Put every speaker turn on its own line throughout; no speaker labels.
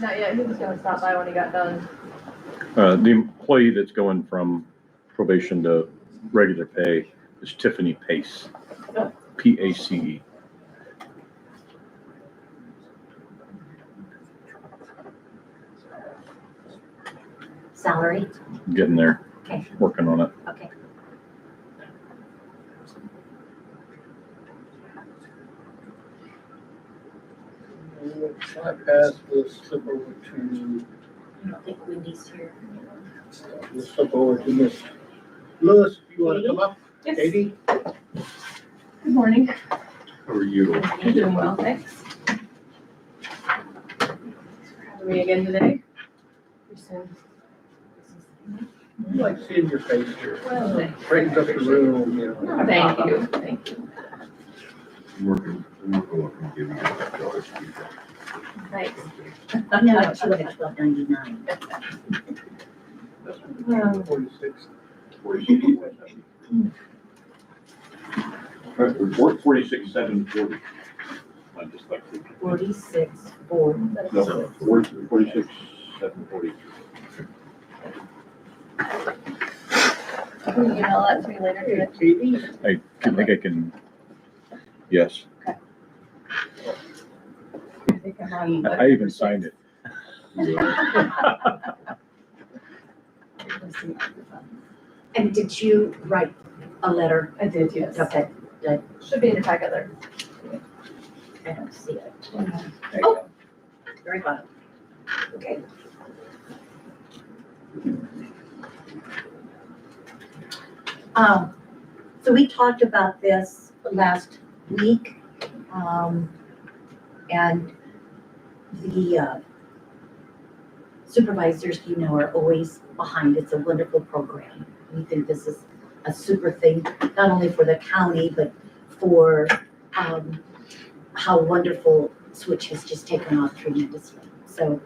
Not yet, he was gonna stop by when he got done.
Uh, the employee that's going from probation to regular pay is Tiffany Pace. P A C E.
Salary,
Getting there,
okay,
working on it.
okay.
If I pass, we'll slip over to,
I don't think Wendy's here.
we'll slip over to Miss Lewis, if you wanna come up, Katie?
Good morning.
How are you?
You're doing well, thanks. Having me again today.
I like seeing your face here.
Well, thank you.
Brightens up the room, you know.
Thank you, thank you.
Working, working, working, giving you that dollar.
Thanks.
No, she was at twelve ninety-nine.
Well,
Forty-six.
Report forty-six, seven, forty. I just like.
Forty-six, four.
No, forty-six, seven, forty.
Can you email that to me later
Hey,
today?
Katie,
I can- think I can, yes,
I think I'm on.
I even signed it.
And did you write a letter?
I did, yes.
Okay,
Should be in your packet there.
I don't see it.
There you go.
Very bottom. Okay. Um, so we talked about this last week, um, and the uh, supervisors, you know, are always behind. It's a wonderful program. We think this is a super thing, not only for the county, but for, um, how wonderful Switch has just taken off tremendously. So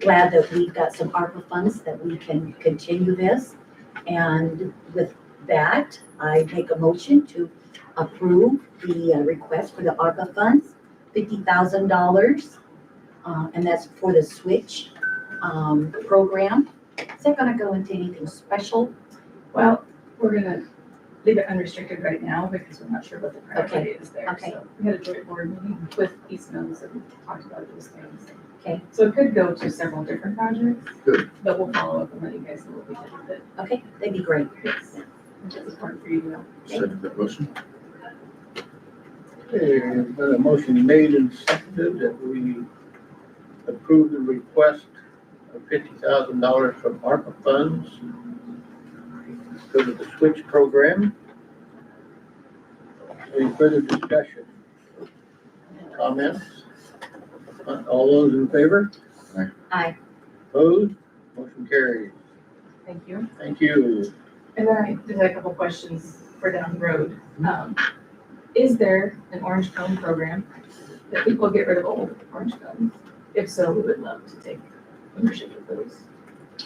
glad that we've got some ARPA funds that we can continue this. And with that, I make a motion to approve the uh, request for the ARPA funds, fifty thousand dollars. uh, and that's for the Switch, um, program. Is that gonna go into anything special?
Well, we're gonna leave it unrestricted right now because we're not sure what the priority is there.
okay.
So We had a joint board meeting with East Mills and talked about those things.
Okay.
So it could go to several different projects.
Good.
But we'll follow up and let you guys know what we did with it.
Okay, that'd be great.
Yes. If it's important for you to know.
Second that motion?
Okay, there's been Uh, a motion made and seconded that we approve the request of fifty thousand dollars from ARPA funds for the switch program. Any further discussion? Comments? All those in favor?
Aye.
Opposed? Motion carried.
Thank you.
Thank you.
And then I just had a couple questions for down the road. Um, Is there an orange cone program that people get rid of old orange cones? If so, we would love to take ownership of those.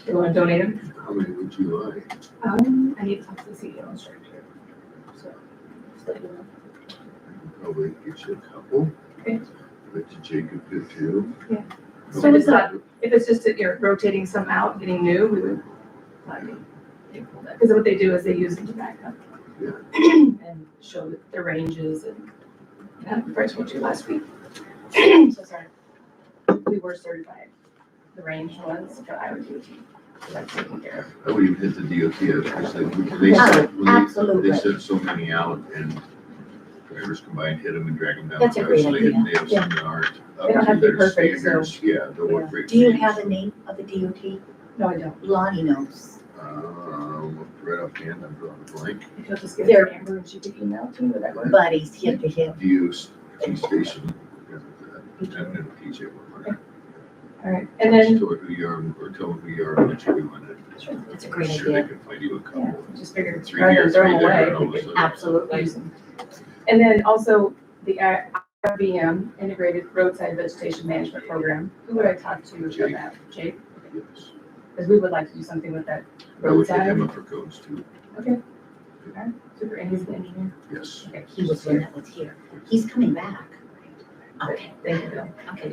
They want to donate them?
How many would you like?
Um, I need to talk to the CEO and structure. So, just let you know.
Probably get Oh, you a couple.
Okay.
Bet you Jacob Oh, could too.
Yeah. So it's not- If it's just that you're rotating some out, getting new, we would, like, because what they do is they use them to back up.
Yeah.
And show that their ranges and, and I think I told you last week. So sorry. We were certified, the range ones for IoT. So that's taken care
I would even Oh, hit the DOT, I was gonna say, we- they sent, when they-
Absolutely.
they sent so many out and drivers combined, hit them and drag them down.
That's a great
Obviously, and
idea.
They have some that aren't
They don't have
up to
to be
their
perfect, so-
standards, yeah, they'll
Yeah.
work great.
Do you
teams.
have the name of the DOT?
of. No, I don't.
Lonnie knows.
Um, Uh, right off the end, I'm drawing a blank.
If you'll just give me
There-
her number and she could email to me, would that work?
Buddies, hip to hip.
Views, T station, and then PJ will work.
All right, and then
Just tell her who you are, or tell them who you are, and what you do on
Sure,
it.
that's a great
Sure,
idea.
they can find you a
Yeah,
couple.
just figured,
Three
rather
here,
than throw
three
them
there,
away.
and all of a sudden-
Absolutely.
use them. And then also the uh, I- IRBM, Integrated Roadside Vegetation Management Program. Who would I talk to about
Jake.
that? Jake?
Yes.
Because we would like to do something with that
I would hit
roadside.
him up for codes too,
Super, and he's the engineer.
yes.
Okay,
He was the one that was here. He's coming back. Okay,
Thank you.
okay.